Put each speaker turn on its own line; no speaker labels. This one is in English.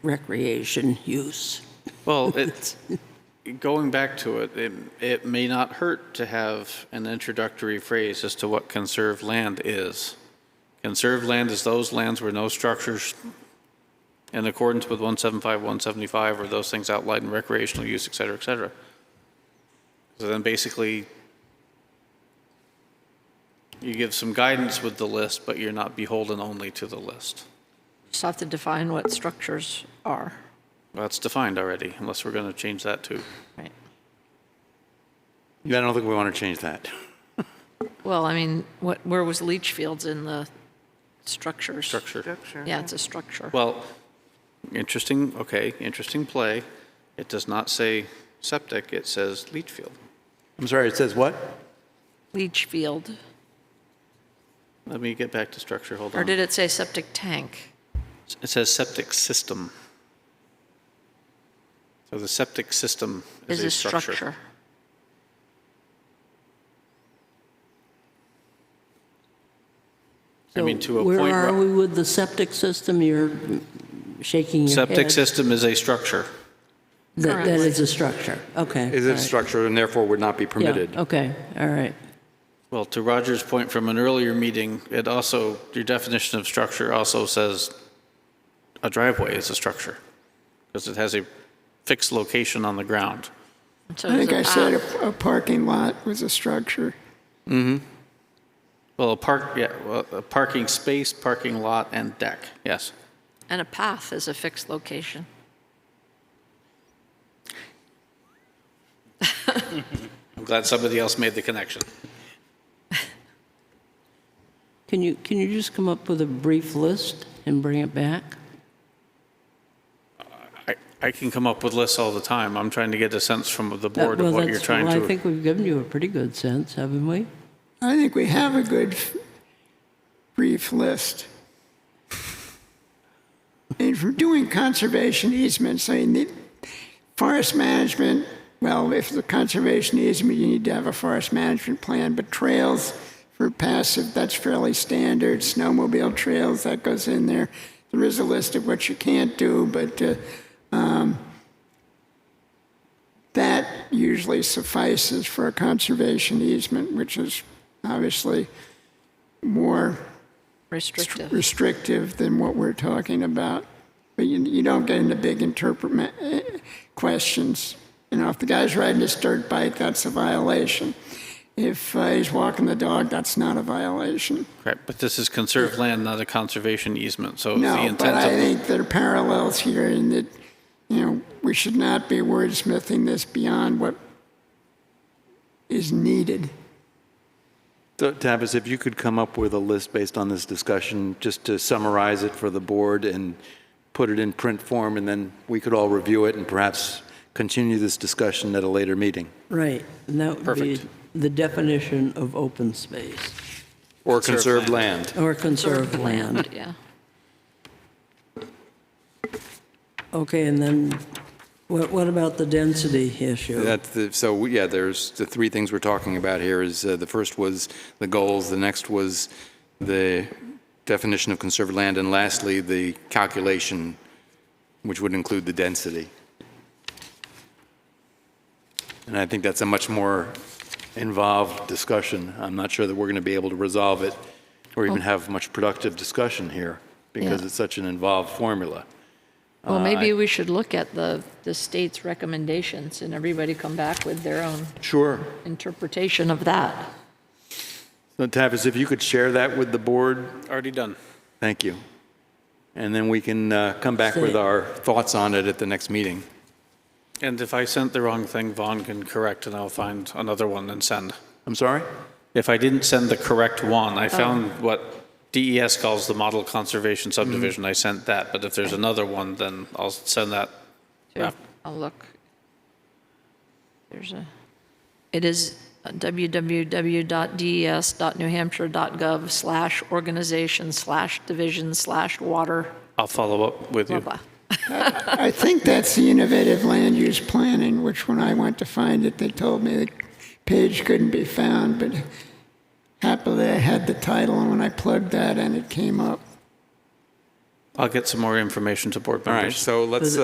recreation use.
Well, it's, going back to it, it, it may not hurt to have an introductory phrase as to what conserved land is. Conserved land is those lands where no structures in accordance with 175, 175, or those things outlined in recreational use, et cetera, et cetera. So then basically, you give some guidance with the list, but you're not beholden only to the list.
Just have to define what structures are,
Well, That's defined already, unless we're going to change that too.
right?
Yeah, I don't think we want to change that.
Well, I mean, what, where was leach fields in the structures?
Structure.
Yeah, it's a structure.
Well, interesting, okay, interesting play. It does not say septic, it says leach field.
I'm sorry, it says what?
Leach field,
Let me get back to structure, hold
or
on.
did it say septic tank?
It says septic system. So the septic system
Is
is a
a
structure.
structure.
I mean, to a
Where
point
are
where-
we with the septic system? You're shaking your head.
Septic system is a structure.
That that
Correct.
is a structure, okay.
Is
all
it
right.
a structure and therefore would not be
Yeah,
permitted?
Okay, all right.
Well, to Roger's point from an earlier meeting, it also, your definition of structure also says a driveway is a structure because it has a fixed location on the ground.
So
I
is
think
it
I said
on-
a, a parking lot was a structure.
Well, a park, yeah, well, a parking space, parking lot, and deck, yes.
And a path is a fixed location.
I'm glad somebody else made the connection.
Can you, can you just come up with a brief list and bring it back?
I, I can come up with lists all the time. I'm trying to get a sense from the
That-
board
well,
of what you're
that's-
trying
Well, I
to.
think we've given you a pretty good sense, haven't we?
I think we have a good f- brief list. And from doing conservation easements, I need forest management. Well, if the conservation easement, you need to have a forest management plan, but trails for passive, that's fairly standard. Snowmobile trails, that goes in there. There is a list of what you can't do, but uh, that usually suffices for a conservation easement, which is obviously more
Restrictive.
restrictive than what we're talking about. But you, you don't get into big interpret eh, questions. You know, if the guy's riding his dirt bike, that's a violation. If uh, he's walking the dog, that's not a violation.
Correct, but this is conserved land, not a conservation easement, so the
No, but I
intent of,
think there are parallels here in that, you know, we should not be wordsmithing this beyond what is needed.
So, Tavis, if you could come up with a list based on this discussion, just to summarize it for the board and put it in print form, and then we could all review it and perhaps continue this discussion at a later meeting.
Right, and that would be
Perfect.
the definition of open space
Or
Conserved
conserved land.
or conserved land.
Yeah.
uh,
Okay, and then what, what about the density issue?
That's the, so, yeah, there's, the three things we're talking about here is, uh, the first was the goals, the next was the definition of conserved land, and lastly, the calculation, which would include the density. And I think that's a much more involved discussion. I'm not sure that we're going to be able to resolve it or even have much productive discussion here because
Yeah.
it's such an involved formula.
Well, maybe we should look at the, the state's recommendations and everybody come back with their own
Sure.
interpretation of that.
So Tavis, if you could share that with the board,
already done.
Thank you. And then we can uh, come back with our thoughts on it at the next meeting.
And if I sent the wrong thing, Vaughn can correct, and I'll find another one and send.
I'm sorry?
If I didn't send the correct one,
Oh.
I found what DES calls the model conservation
Mm-hmm.
subdivision, I sent that, but if there's another one, then I'll send that.
Sure.
af-
I'll look. There's a, it is E www.des.newhampshire.gov/organization/division/water,
I'll follow up with
blah,
you.
blah.
I think that's the innovative land use planning, which when I went to find it, they told me the page couldn't be found, but happily I had the title, and when I plugged that in, it came up.
I'll get some more information to board
All right,
members.
so let's,